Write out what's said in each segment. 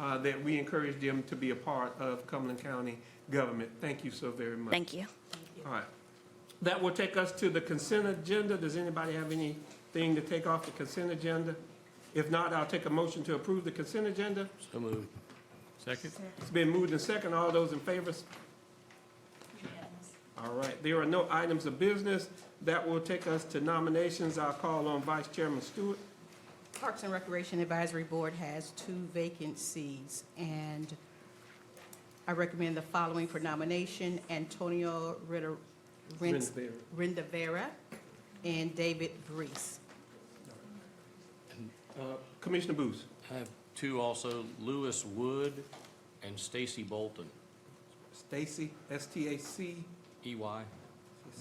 uh, that we encourage them to be a part of Cumberland County government. Thank you so very much. Thank you. All right. That will take us to the consent agenda. Does anybody have anything to take off the consent agenda? If not, I'll take a motion to approve the consent agenda. So moved. Second? It's been moved and second. All those in favor? All right. There are no items of business. That will take us to nominations. I'll call on Vice Chairman Stewart. Parks and Recreation Advisory Board has two vacancies, and I recommend the following for nomination, Antonio Ritter- Rin- Rinsberry. Rindavera and David Brees. Uh, Commissioner Booth. I have two also, Lewis Wood and Stacy Bolton, Stacy, S-T-A-C. EY. C-E-Y.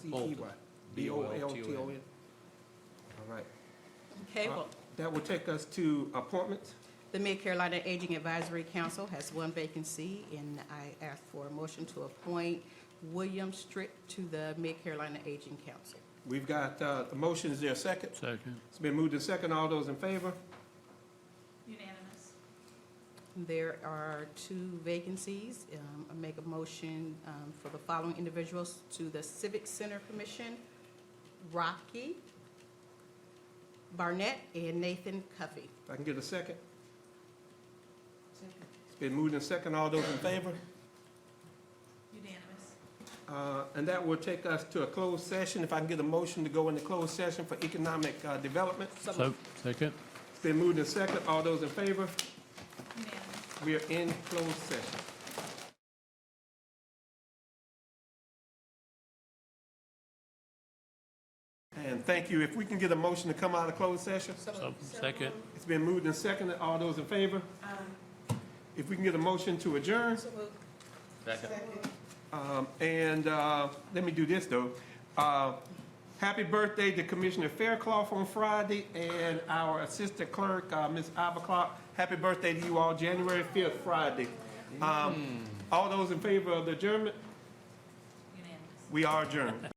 Bolton. B-O-L-T-O-N. All right. Okay, well, That will take us to appointments. the Mid-Carolina Aging Advisory Council has one vacancy, and I ask for a motion to appoint William Strick to the Mid-Carolina Aging Council. We've got uh, the motion, is there a second? Second. It's been moved and second, all those in favor? Unanimous. There are two vacancies. Um, I make a motion um, for the following individuals to the Civic Center Commission, Rocky Barnett and Nathan Cuffey. If I can get a second? It's been moved and second, all those in favor? Unanimous. Uh, And that will take us to a closed session. If I can get a motion to go into closed session for economic uh, development. So, second? It's been moved and second, all those in favor? Unanimous. We are in closed session. And thank you. If we can get a motion to come out of closed session? So, second? It's been moved and seconded. All those in favor? If we can get a motion to adjourn, Second. um, and, uh, let me do this though. Uh, happy birthday to Commissioner Faircloth on Friday and our Assistant Clerk, uh, Ms. Ivaclock. Happy birthday to you all, January fifth, Friday. Um, all those in favor of the adjournment, Unanimous. we are adjourned.